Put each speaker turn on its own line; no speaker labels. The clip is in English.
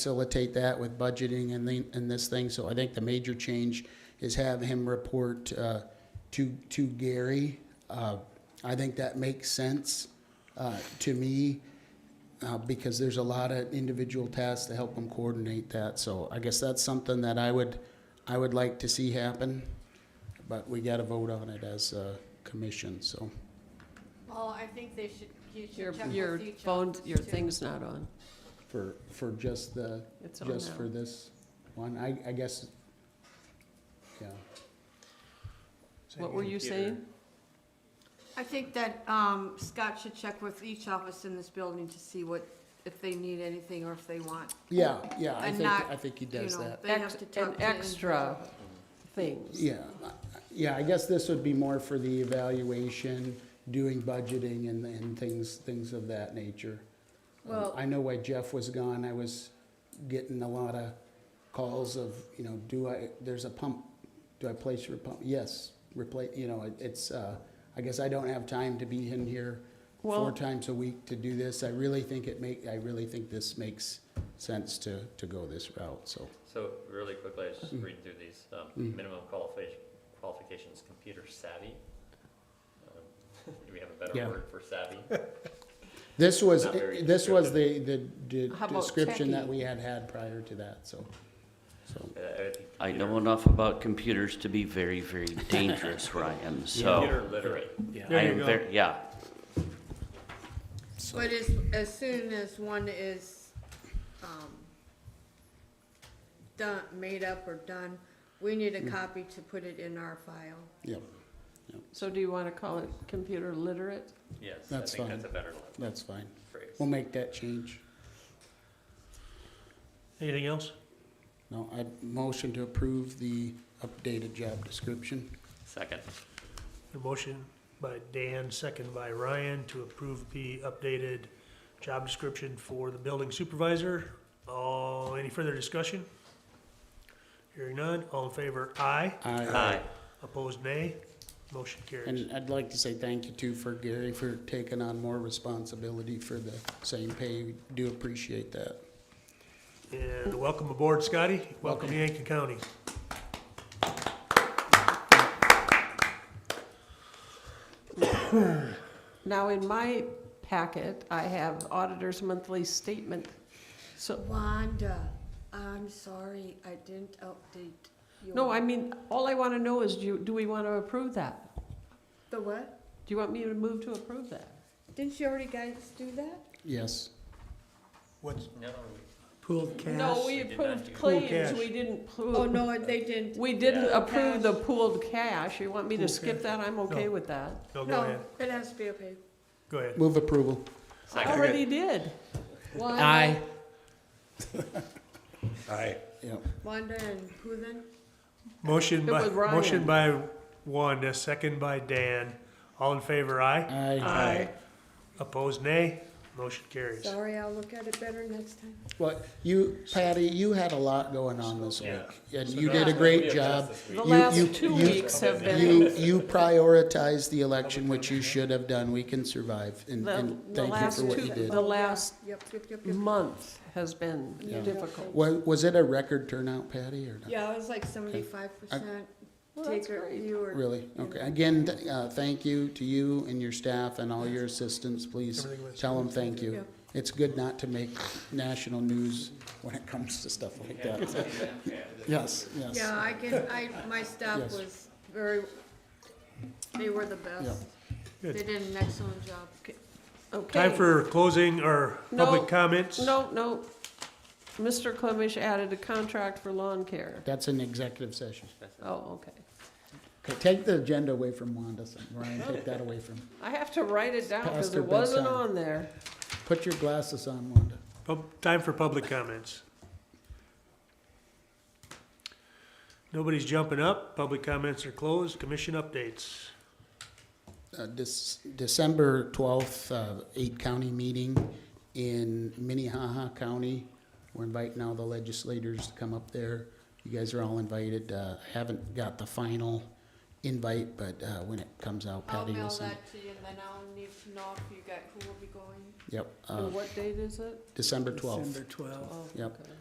facilitate that with budgeting and the, and this thing. So I think the major change is have him report, uh, to, to Gary. Uh, I think that makes sense, uh, to me, uh, because there's a lot of individual tasks to help him coordinate that. So I guess that's something that I would, I would like to see happen, but we gotta vote on it as a commission, so.
Well, I think they should, you
Your,
should check with
your
each
phone's,
office,
your
too.
thing's not on.
For, for just the,
It's on
just
now.
for this one, I, I guess, yeah.
What were you saying?
I think that, um, Scott should check with each office in this building to see what, if they need anything or if they want,
Yeah, yeah, I
And
think,
not,
I think he
you
does
know,
that.
they have
Ex-
to talk
and
to.
extra
individual.
things.
Yeah, I- yeah, I guess this would be more for the evaluation, doing budgeting and, and things, things of that nature. Um,
Well-
I know why Jeff was gone, I was getting a lot of calls of, you know, do I, there's a pump, do I place your pump? Yes, replace, you know, it- it's, uh, I guess I don't have time to be in here four
Well-
times a week to do this. I really think it make, I really think this makes sense to, to go this route, so.
So really quickly, I was
Mm.
just reading through these, um, minimum qualification, qualifications, computer savvy. Um, Do we have a
Yeah.
better word for savvy? Uh,
This was,
Not very
this was the, the de-
How about
description that
techie?
we had had prior to that, so. so,
Uh, I think
I know
computer-
enough about computers to be very, very dangerous, Ryan,
Oh.
so.
Computer literate,
I am very, yeah,
But as, as soon as one is, um, done, made up or done, we need a
Hmm.
copy to put it in our file.
Yep,
So do you want to call it computer literate?
yes, I
That's
think
fine.
that's a better
that's fine.
phrase.
We'll make that change.
Anything else?
No, I motion to approve the updated job description.
Second,
A motion by Dan, second by Ryan, to approve the updated job description for the building supervisor. Oh, any further discussion? Hearing none, all in favor, aye.
aye,
Opposed, nay. Motion carries.
And I'd like to say thank you too for Gary for taking on more responsibility for the same pay. We Do appreciate that.
And welcome aboard, Scotty. Welcome to Yankton County.
Now, in my packet, I have auditor's monthly statement. So,
Wanda, I'm sorry, I didn't update your.
no, I mean, all I want to know is, do, you- do we want to approve that?
The what?
Do you want me to move to approve that?
Didn't you already guys do that?
Yes,
What's
no, we-
pool cash?
No, we
did not
approved
do-
Pool
claims,
cash.
we didn't
Oh,
approve,
no, they didn't.
we didn't
Yeah.
approve the pooled cash. You want me to
Pool
skip
cash.
that? I'm okay
No.
with that.
No, Oh, go
No,
ahead,
it has to be okay.
go ahead.
move approval.
I
second,
already did. One,
Aye.
Yep,
Wanda and who then?
Motion
It
by,
was Ryan.
motion by Wanda, second by Dan. All in favor, aye.
aye.
Opposed, nay. Motion carries.
Sorry, I'll look at it better next time.
Well, you, Patty, you had a lot going on this week,
Yeah.
and you did a great job.
The
You- you-
last two
you-
weeks have
You,
been,
you prioritized the election, which you should have done. We can survive, and,
the,
and
the
thank you
last
for what you
two,
did.
the last
Yep, yep, yep, yep.
month has been
Yeah.
difficult.
Was, was it a record turnout, Patty, or not?
Yeah, it was like seventy-five percent.
Well, that's
Take or
great.
you or.
Really? Okay. Again, th- uh, thank you to you and your staff and all your assistants. Please
Everything was-
tell them thank you.
Yeah.
It's good not to make national news when it comes to stuff like that. Yes, yes.
Yeah, I can, I, my staff
Yes.
was very, they were the best. They
Good.
did an excellent job.
Okay.
Time for closing or
No.
public comments?
No, no. Mr. Clemish added a contract for lawn care.
That's an executive session.
Oh, okay.
Okay, Take the agenda away from Wanda, Ryan. Take that away from.
I have to write it down because
Past her
it wasn't
bedtime.
on there.
Put your glasses on, Wanda.
Pub- Time for public comments. Nobody's jumping up. Public comments are closed. Commission updates.
Uh, this December twelfth, uh, eight county meeting in Minnehaha County. We're inviting all the legislators to come up there. You guys are all invited. Uh, I haven't got the final invite, but, uh, when it comes out,
I'll
Patty will
mail
send.
that to you and then I'll need to know if you got, who will be going.
Yep, uh,
And what date is it?
December 12th.
December 12th.
Oh,
Yep.
okay.